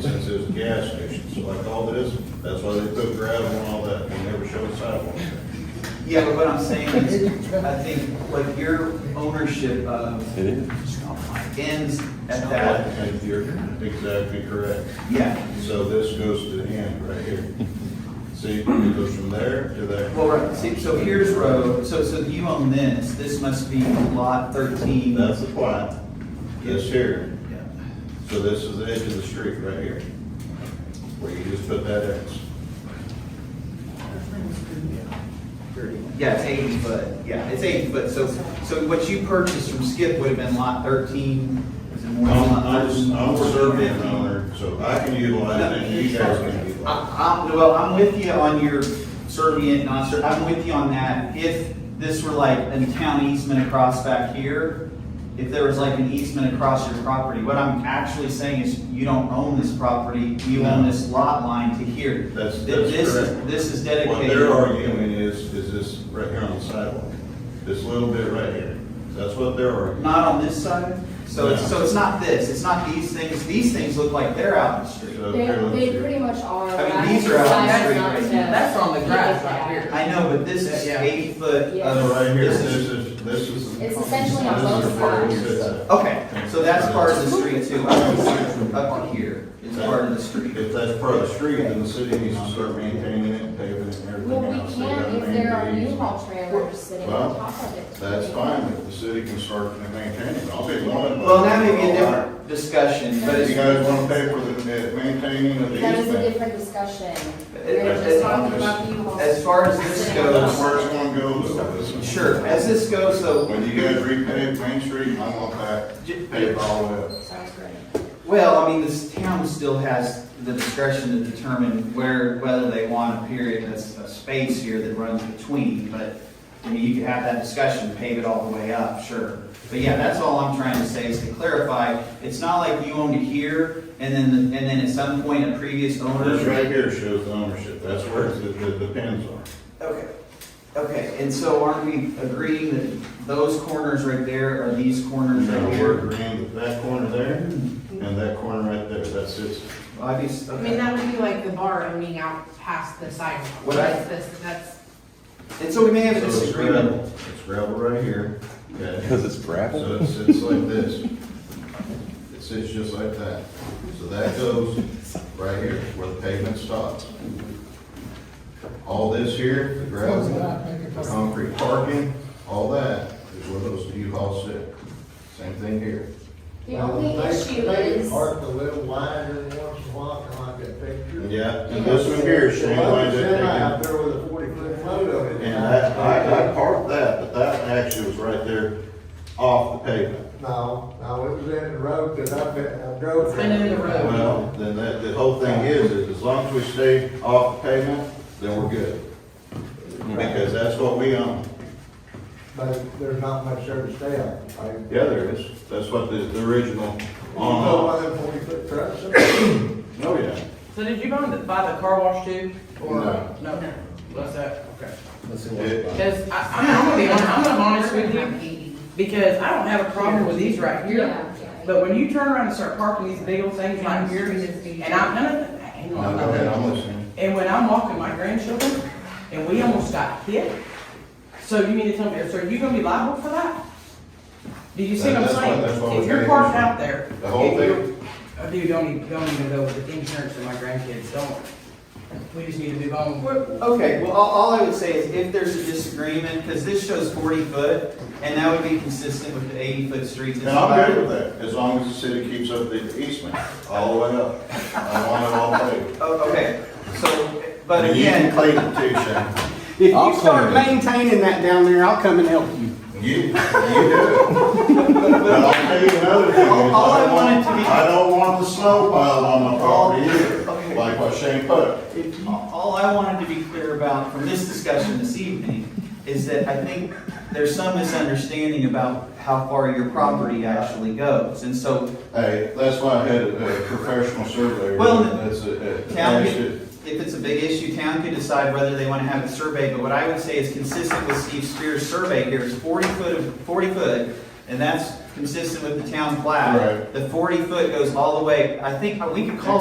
the gas stations, like all this, that's why they put gravel and all that, they never showed sidewalks. Yeah, but what I'm saying is, I think what your ownership of It is. ends at that, And You're exactly correct. yeah. So this goes to the end right here. See, it goes from there to there. Well, right, see, so here's road, so, so you own this, this must be lot thirteen. That's the plat, this here, Yeah. so this is the edge of the street right here, where you just put that X. Yeah, it's eighty foot, yeah, it's eighty foot, so, so what you purchased from Skip would have been lot thirteen, is it more than I'm, lot I'm, thirteen? I'm serving 14? owner, so I can utilize it, and you guys can utilize I, I'm, well, I'm with you on your servient, non ser I'm with you on that. If this were like a town easement across back here, if there was like an easement across your property, what I'm actually saying is you don't own this property, you own this lot line to here. it. That's, Th- that's This, correct. this is What dedicated. they're arguing is, is this right here on the sidewalk, this little bit right here, that's what they're arguing. Not on this side? So, it's- so it's not this, it's not these things, these things look like they're out in the street. So They, here, let's they see. pretty much are. I mean, but these are out on the street decided right not now. to- That's on the grass right here. I know, but this is Yeah. eighty foot Yeah. So of. right here, this this is- is, this is. It's essentially on this is both the part sides. that sits up. Okay, so that's part of the street too, up to here, it's part of the street. If that's part of the street, then the city needs to start maintaining it, paving it and Well, everything we else. They can gotta if there are maintain new it. haul trailers sitting Well, on top of it. That's fine, if the city can start to maintain it, I'll be one. Well, that may be a different discussion, but If you it's, guys wanna pay for the uh, maintaining of the That is a easement, different discussion. It- We're it- just talking about you all. as far as this that's goes, where it's gonna go though. isn't it? sure, as this goes, so, When you guys repave Main Street, I want that j- paved all the way up. Sounds great. well, I mean, this town still has the discretion to determine where, whether they want a period, a, a space here that runs between, but, I mean, you could have that discussion, pave it all the way up, sure. But yeah, that's all I'm trying to say is to clarify, it's not like you owned it here, and then, and then at some point, a previous owner. This right here shows the ownership, that's where it's- the, the pins are. Okay, okay, and so aren't we agreeing that those corners right there are these corners Now, right we're here? agreeing that that corner there and that corner right there, that's it. Obviously, I mean, okay. that would be like the bar owning out past the sidewalk. What I- That's this- That's, And so we may have a So it's disagreement. gravel, it's gravel right here, okay? Because it's gravel? So it sits like this. It sits just like that. So that goes right here where the pavement stops. All this here, the gravel, the concrete parking, all that is where those U-Hauls sit. Same thing here. The only Well, Uh, they- issue they is, Park a little wider than once in a while, kind of like that picture. Yeah, and this one here is The showing low like semi that. out there with a forty foot load of it. And that, I, I parked that, but that actually was right there off the pavement. No, no, it was in the road, cause I've been, I drove. It's been in the road. Well, then that, the whole thing is, is as long as we stay off the pavement, then we're good. Because that's what we own. But there's not much there to stay on. I- Yeah, there is. That's what the, the original, You know oh, why them forty foot trucks? oh, yeah. So did you buy the, buy the car wash too? Or- No. No, what's that? Okay. It- Because I, I mean, I'm gonna be honest, I'm gonna be honest with I'm you, eighty. because I don't have a problem with these right here. yeah, yeah. But when you turn around and start parking these big old things like here, and I'm, no, no, no, hang No, on. go ahead, I'm listening. And when I'm walking my grandchildren, and we almost got hit, so you mean to tell me, so are you gonna be liable for that? Do you see what I'm That's what- saying? that's what If we're you're getting parked into. out there. The whole if you're- thing. Oh, Dude, don't even, don't even go with the insurance for my grandkids, don't. We just need to move on. We're- Okay, well, all, all I would say is if there's a disagreement, because this shows forty foot, and that would be consistent with the eighty foot streets. And I'm good with that, as long as the city keeps up the easement all the way up. I want it all paved. Oh, okay, so, but And you can again, clean it too, Shane. If I'll you start come in. maintaining that down there, I'll come and help you. You, you do it. But I'll tell you another thing. All- all I don't wanted to be- Oh, I don't want the snow piled on my property either, Okay. like what Shane put. if you- all I wanted to be clear about from this discussion this evening is that I think there's some misunderstanding about how far your property actually goes. And so Hey, that's why I had a a professional surveyor. Well, That's a, a- Town that's could, it. if it's a big issue, town could decide whether they want to have it surveyed, but what I would say is consistent with Steve Spear's survey here is forty foot of, forty foot, and that's consistent with the town plat. Right. The forty foot goes all the way, I think, we could call